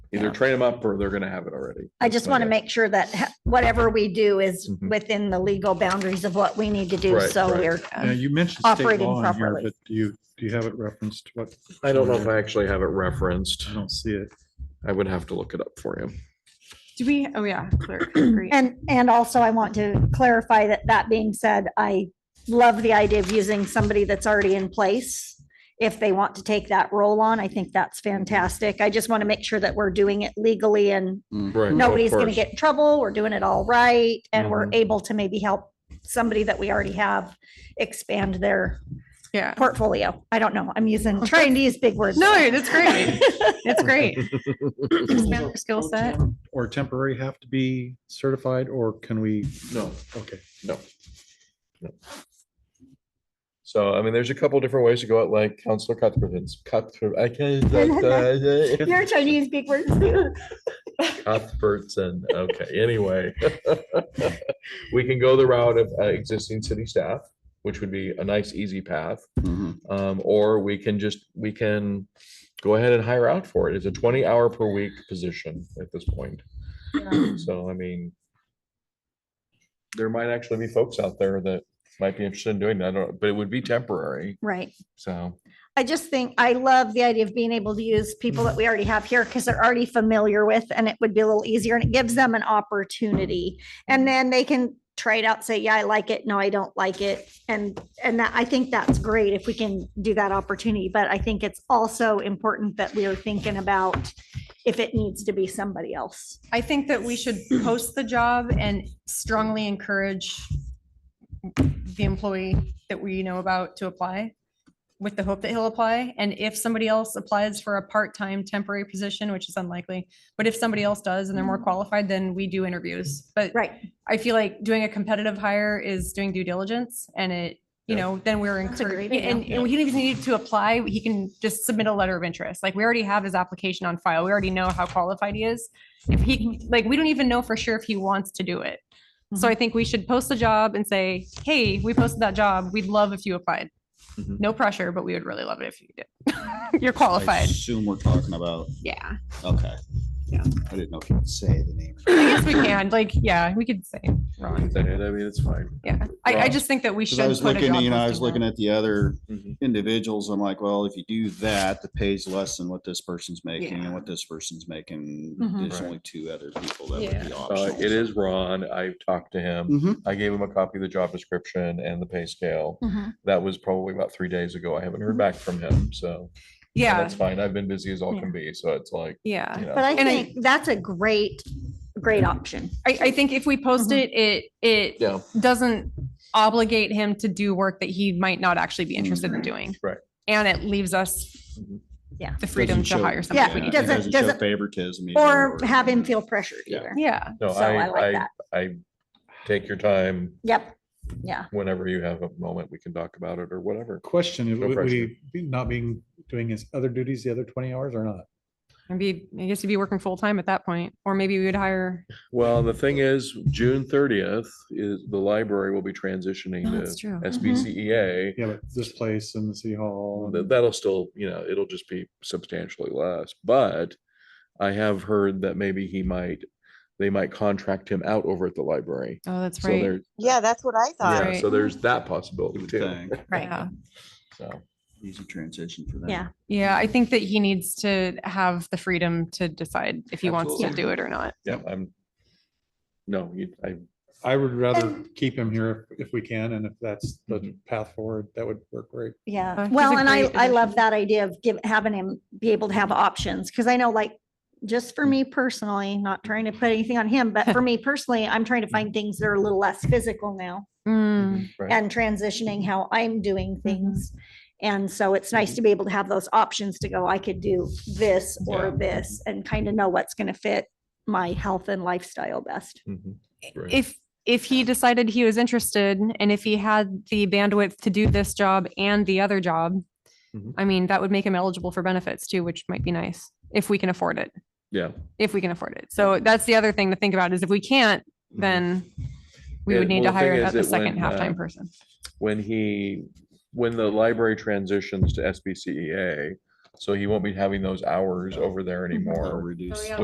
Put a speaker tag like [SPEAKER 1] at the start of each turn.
[SPEAKER 1] Either
[SPEAKER 2] Yeah.
[SPEAKER 1] train them up or they're gonna have it already.
[SPEAKER 3] I just want to make sure that ha- whatever we do is
[SPEAKER 1] Mhm.
[SPEAKER 3] within the legal boundaries of what we need to do.
[SPEAKER 1] Right,
[SPEAKER 3] So
[SPEAKER 1] right.
[SPEAKER 3] we're,
[SPEAKER 4] Yeah, you mentioned state
[SPEAKER 3] Uh, operating
[SPEAKER 4] law in here,
[SPEAKER 3] properly.
[SPEAKER 4] but do you, do you have it referenced? What,
[SPEAKER 1] I don't know if I actually have it referenced.
[SPEAKER 4] I don't see it.
[SPEAKER 1] I would have to look it up for you.
[SPEAKER 5] Do we, oh yeah, clerk, agree.
[SPEAKER 3] and, and also I want to clarify that that being said, I love the idea of using somebody that's already in place. If they want to take that role on, I think that's fantastic. I just want to make sure that we're doing it legally and
[SPEAKER 1] Right.
[SPEAKER 3] nobody's going to get in trouble. We're doing it all right. And we're able to maybe help somebody that we already have expand their
[SPEAKER 5] Yeah.
[SPEAKER 3] portfolio. I don't know. I'm using, trying to use big words.
[SPEAKER 5] No, it's great. It's great. Expand their skill set.
[SPEAKER 4] Or temporary have to be certified or can we,
[SPEAKER 1] No,
[SPEAKER 4] okay.
[SPEAKER 1] no. no. So, I mean, there's a couple different ways to go out, like Counselor Cuthbertson's, Cuthbert, I can't.
[SPEAKER 3] You're trying to use big words too.
[SPEAKER 1] Cuthbertson. Okay, anyway. We can go the route of uh, existing city staff, which would be a nice, easy path. Um, or we can just, we can go ahead and hire out for it. It's a twenty hour per week position at this point. So I mean. There might actually be folks out there that might be interested in doing that, or- but it would be temporary,
[SPEAKER 3] Right.
[SPEAKER 1] so.
[SPEAKER 3] I just think, I love the idea of being able to use people that we already have here because they're already familiar with and it would be a little easier and it gives them an opportunity. And then they can try it out, say, yeah, I like it. No, I don't like it. And, and that, I think that's great if we can do that opportunity. But I think it's also important that we are thinking about if it needs to be somebody else.
[SPEAKER 5] I think that we should post the job and strongly encourage the employee that we know about to apply with the hope that he'll apply. And if somebody else applies for a part-time temporary position, which is unlikely, but if somebody else does and they're more qualified, then we do interviews. But
[SPEAKER 3] Right.
[SPEAKER 5] I feel like doing a competitive hire is doing due diligence and it, you
[SPEAKER 1] Yeah.
[SPEAKER 5] know, then we're
[SPEAKER 3] That's a great
[SPEAKER 5] encouraged. And,
[SPEAKER 1] idea.
[SPEAKER 5] and he doesn't even need to apply. He can just submit a letter of interest. Like we already have his application on file. We already know how qualified he is. If he, can- like, we don't even know for sure if he wants to do it. So
[SPEAKER 3] Mm-hmm.
[SPEAKER 5] I think we should post the job and say, hey, we posted that job. We'd love if you applied.
[SPEAKER 6] Mm-hmm.
[SPEAKER 1] Mhm.
[SPEAKER 5] No pressure, but we would really love it if you did. You're qualified.
[SPEAKER 6] Assume we're talking about,
[SPEAKER 5] Oh, Yeah.
[SPEAKER 6] okay.
[SPEAKER 5] Yeah.
[SPEAKER 6] I didn't know if you could say the name.
[SPEAKER 5] I guess we can, like, yeah, we could say,
[SPEAKER 1] I mean, it's fine.
[SPEAKER 5] yeah. I, I
[SPEAKER 6] Well,
[SPEAKER 5] just think that we should.
[SPEAKER 6] Cause I was
[SPEAKER 5] put a
[SPEAKER 6] looking,
[SPEAKER 5] job
[SPEAKER 6] you know, I
[SPEAKER 5] posting
[SPEAKER 6] was
[SPEAKER 5] out.
[SPEAKER 6] looking at the other
[SPEAKER 1] Mhm.
[SPEAKER 6] individuals. I'm like, well, if you do that, the pay's less than what this person's making
[SPEAKER 5] Yeah.
[SPEAKER 6] and what this person's making.
[SPEAKER 5] Mhm.
[SPEAKER 6] There's
[SPEAKER 1] Right.
[SPEAKER 6] only two other people that would
[SPEAKER 5] Yeah.
[SPEAKER 6] be
[SPEAKER 1] Uh,
[SPEAKER 6] optional.
[SPEAKER 1] it is Ron, I talked to him,
[SPEAKER 3] Mm-hmm.
[SPEAKER 6] Mhm.
[SPEAKER 1] I gave him a copy of the job description and the pay scale.
[SPEAKER 5] Mhm.
[SPEAKER 1] That was probably about three days ago, I haven't heard back from him, so. And
[SPEAKER 5] Yeah,
[SPEAKER 1] That's fine. I've been busy as all
[SPEAKER 5] Yeah.
[SPEAKER 1] can be. So it's like,
[SPEAKER 5] yeah.
[SPEAKER 1] you know,
[SPEAKER 3] But I
[SPEAKER 5] And I-
[SPEAKER 3] think that's a great, great option.
[SPEAKER 5] I, I think if we post it, it, it
[SPEAKER 1] yeah,
[SPEAKER 5] doesn't obligate him to do work that he might not actually be interested in doing.
[SPEAKER 1] Right.
[SPEAKER 5] And it leaves us
[SPEAKER 1] Mhm.
[SPEAKER 3] Yeah.
[SPEAKER 5] the freedom to
[SPEAKER 6] Doesn't show-
[SPEAKER 5] hire
[SPEAKER 3] Yeah,
[SPEAKER 5] somebody.
[SPEAKER 3] it
[SPEAKER 6] it
[SPEAKER 3] doesn't-
[SPEAKER 6] doesn't show
[SPEAKER 3] doesn't-
[SPEAKER 6] favoritism. either,
[SPEAKER 3] Or have him feel pressured
[SPEAKER 6] Yeah.
[SPEAKER 3] either.
[SPEAKER 5] Yeah,
[SPEAKER 1] no,
[SPEAKER 3] So I like
[SPEAKER 1] I,
[SPEAKER 3] that.
[SPEAKER 1] I, I take your time
[SPEAKER 3] Yep. Yeah.
[SPEAKER 1] whenever you have a moment, we can talk about it or whatever.
[SPEAKER 4] Question,
[SPEAKER 1] No
[SPEAKER 4] would would
[SPEAKER 1] pressure.
[SPEAKER 4] he be not being, doing his other duties the other twenty hours or not?
[SPEAKER 5] maybe, I guess he'd be working full-time at that point, or maybe we would hire,
[SPEAKER 1] Well, the thing is, June thirtieth is the library will be transitioning
[SPEAKER 5] No, that's
[SPEAKER 1] to
[SPEAKER 5] true. Mm-hmm.
[SPEAKER 1] SBCEA.
[SPEAKER 4] Yeah, but this place and the city hall.
[SPEAKER 1] Th-
[SPEAKER 4] and-
[SPEAKER 1] E That'll still, you know, it'll just be substantially less, but I have heard that maybe he might, they might contract him out over at the library.
[SPEAKER 5] Oh, that's
[SPEAKER 1] So
[SPEAKER 5] right.
[SPEAKER 1] there,
[SPEAKER 7] Yeah, that's what I thought.
[SPEAKER 1] yeah,
[SPEAKER 5] Right.
[SPEAKER 1] so there's that
[SPEAKER 6] You
[SPEAKER 1] possibility
[SPEAKER 6] would
[SPEAKER 1] too.
[SPEAKER 6] think.
[SPEAKER 3] Right.
[SPEAKER 5] Yeah.
[SPEAKER 1] So.
[SPEAKER 6] Easy transition for them.
[SPEAKER 3] Yeah.
[SPEAKER 5] Yeah, I think that he needs to have the freedom to decide if he wants to
[SPEAKER 6] Absolutely.
[SPEAKER 5] do it or not.
[SPEAKER 1] Yeah, I'm. No, you, I,
[SPEAKER 4] I would rather
[SPEAKER 3] And-
[SPEAKER 4] keep him here if if we can, and if that's the
[SPEAKER 1] Mhm.
[SPEAKER 4] path forward, that would work great.
[SPEAKER 5] Uh,
[SPEAKER 3] Yeah,
[SPEAKER 5] he's
[SPEAKER 3] well,
[SPEAKER 5] a
[SPEAKER 3] and I,
[SPEAKER 5] great
[SPEAKER 3] I love
[SPEAKER 5] addition.
[SPEAKER 3] that idea of give, having him be able to have options, because I know like, just for me personally, not trying to put anything on him, but for me personally, I'm trying to find things that are a little less physical now
[SPEAKER 5] Mm,
[SPEAKER 1] right.
[SPEAKER 3] and transitioning how I'm doing
[SPEAKER 5] Mm-hmm.
[SPEAKER 3] things. And so it's nice to be able to have those options to go, I could do this or
[SPEAKER 1] Yeah.
[SPEAKER 3] this and kind of know what's going to fit my health and lifestyle best.
[SPEAKER 1] Mhm. Right.
[SPEAKER 5] If, if he decided he was interested and if he had the bandwidth to do this job and the other job,
[SPEAKER 1] Mhm.
[SPEAKER 5] I mean, that would make him eligible for benefits too, which might be nice if we can afford it,
[SPEAKER 1] Yeah.
[SPEAKER 5] if we can afford it. So that's the other thing to think about is if we can't,
[SPEAKER 1] Mhm.
[SPEAKER 5] then we would
[SPEAKER 1] And-
[SPEAKER 5] need to
[SPEAKER 1] well, the thing
[SPEAKER 5] hire
[SPEAKER 1] is
[SPEAKER 5] a a
[SPEAKER 1] that when,
[SPEAKER 5] second halftime
[SPEAKER 1] uh,
[SPEAKER 5] person.
[SPEAKER 1] When he, when the library E transitions to SBCEA, so he won't be having those hours over there
[SPEAKER 6] Or
[SPEAKER 1] anymore.
[SPEAKER 6] reduce.